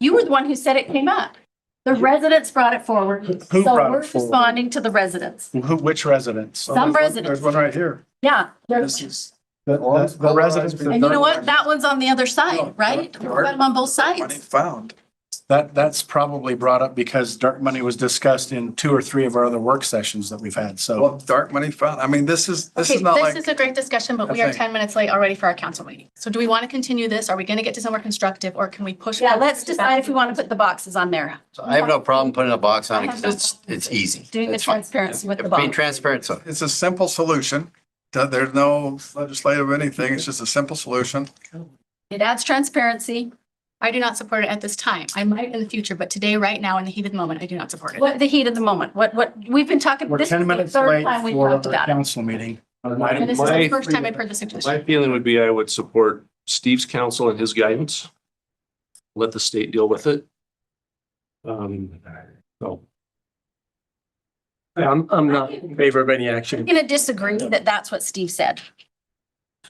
You were the one who said it came up. The residents brought it forward. who So brought it we're forward? responding to the residents. Who, which residents? So Some there's one- residents. There's one right here. Yeah. This there's- is, the, All the- this the residents, polarized And you know that, what? That one's on the other side, right? We've got them on both money sides. found. that- that's probably brought up because dark money was discussed in two or three of our other work sessions that we've had, so. Well, dark money found. I mean, this is, this Okay, is not this like, is a great discussion, but we I are think- ten minutes late already for our council meeting. So do we want to continue this? Are we going to get to somewhere constructive or can we push? Yeah, it? let's decide if we want to put the boxes on there, So I have no problem putting a box on it because it's, it's easy. doing the It's fine. transparency with the If Being box. transparent, so it's a simple solution. Th- There's no legislative anything. It's just a simple solution. It adds transparency. I do not support it at this time. I might in the future, but today, right now, in the heat of the moment, I do not support it. What, the heat of the moment, what, what, we've been talking, We're this is ten the minutes third late time we've for our talked about it. council meeting. And My, this is the my- first time I've heard the suggestion. my feeling would be I would support Steve's counsel and his guidance. Let the state deal with it. Um, so. I'm, I'm not in favor of any I'm action. going to disagree that that's what Steve said.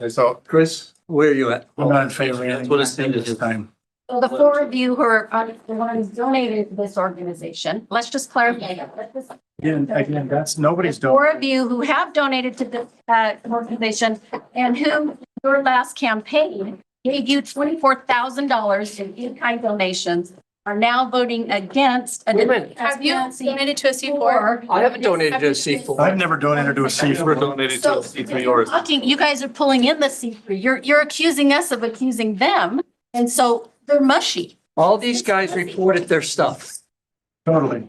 So Chris, where are you at? I'm not in favor of That's what it anything said. this time. So the four of you who are, on- the ones donated to this organization, let's just clarify. that. Let's just- Again, again, that's, nobody's The Four doing. of you who have donated to this uh, organization and who your last campaign gave you twenty-four thousand dollars in in-kind donations are now voting against. a- Wait a minute. Have you donated to a C four? Or- I haven't donated to a C4. I've never donated to a C four. Never donated So to C three or. Talking, you guys are pulling in the C three. You're, you're accusing us of accusing them. And so they're mushy. All these guys reported their stuff. Totally.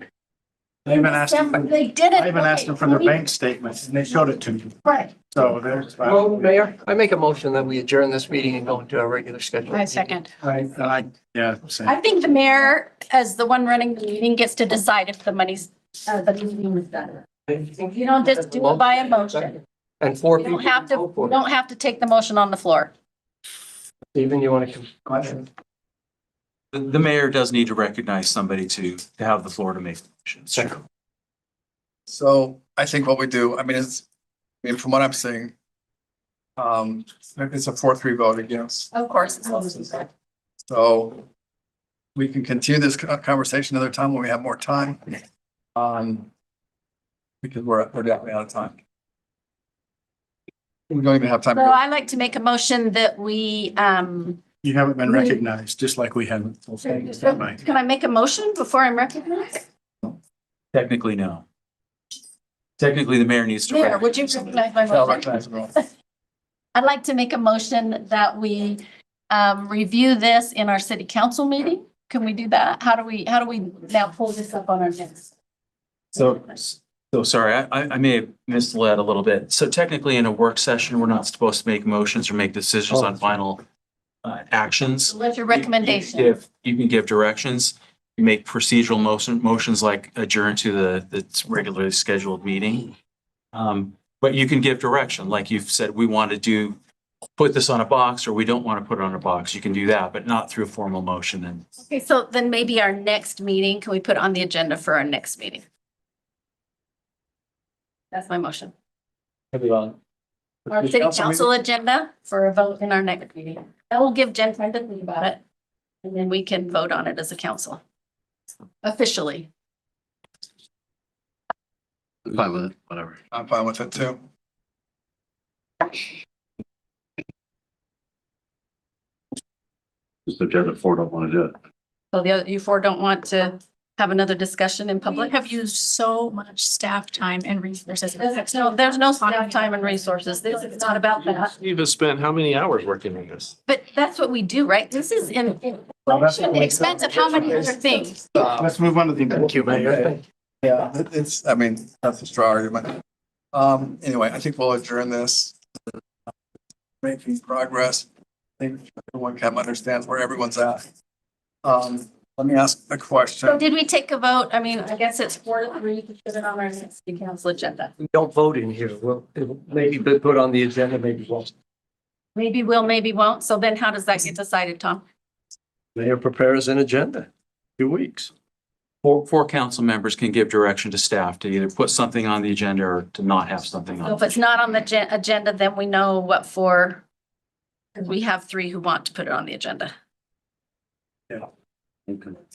They've been asking, for- They did it. I've been asking for their bank statements and they showed it to me. Right. So there's. Well, Mayor, I make a motion that we adjourn this meeting and go into our regular schedule. I second. I, and I, yeah, same. I think the mayor, as the one running the meeting, gets to decide if the money's, uh, the meeting is done. You don't just do it by a motion. And four You people. don't have to, vote for you it. don't have to take the motion on the floor. Stephen, you want to come? The, the mayor does need to recognize somebody to, to have the floor to make decisions. So I think what we do, I mean, it's, I mean, from what I'm seeing, um, it's a four, three vote against. Of course. it's always the So we can continue this co- conversation another time when we have more time. Um, because we're, we're definitely out of time. We don't even have time. So to go. I like to make a motion that we, um, You haven't been We- recognized, just like we haven't. can I make a motion before I'm recognized? Technically, no. Technically, the mayor needs to. Mayor, would you recognize somebody. recognize my I'll motion? recognize everyone. I'd like to make a motion that we, um, review this in our city council meeting. Can we do that? How do we, how do we now pull this up on our next? So, so sorry, I, I I may have misled a little bit. So technically, in a work session, we're not supposed to make motions or make decisions on final uh, actions. What's your You- you recommendation? give- You can give directions, you make procedural motion, motions like adjourn to the, the regularly scheduled meeting. Um, but you can give direction, like you've said, we want to do, put this on a box, or we don't want to put it on a box. You can do that, but not through a formal motion and Okay, so then maybe our next meeting, can we put on the agenda for our next meeting? That's my motion. Our city council agenda for a vote in our next meeting. That will give Jen time to think about it. And then we can vote on it as a council. Officially. I'm fine with it, whatever. I'm fine with it too. Just the agenda four don't want to do it. So the other, you four don't want to have another discussion in We public? have used so much staff time and resources. There's no, there's no staff time and resources. This is not about that. Steve has spent how many hours working on this? But that's what we do, right? This is in Well, that's what at the we- expense of how many other things? Let's move on to the. Thank you, Mayor. Yeah, it- it's, I mean, that's a straw argument. Um, anyway, I think we'll adjourn this. Making progress. I think everyone kind of understands where everyone's at. Um, let me ask a So question. did we take a vote? I mean, I guess it's four to three to put it on our next city council agenda. We don't vote in here. Well, it'll maybe be put on the agenda, maybe won't. Maybe will, maybe won't. So then how does that get decided, Tom? Mayor prepares an agenda, two weeks. Four, four council members can give direction to staff to either put something on the agenda or to not have something So on. if it's not on the gen- agenda, then we know what for. We have three who want to put it on the agenda. Okay.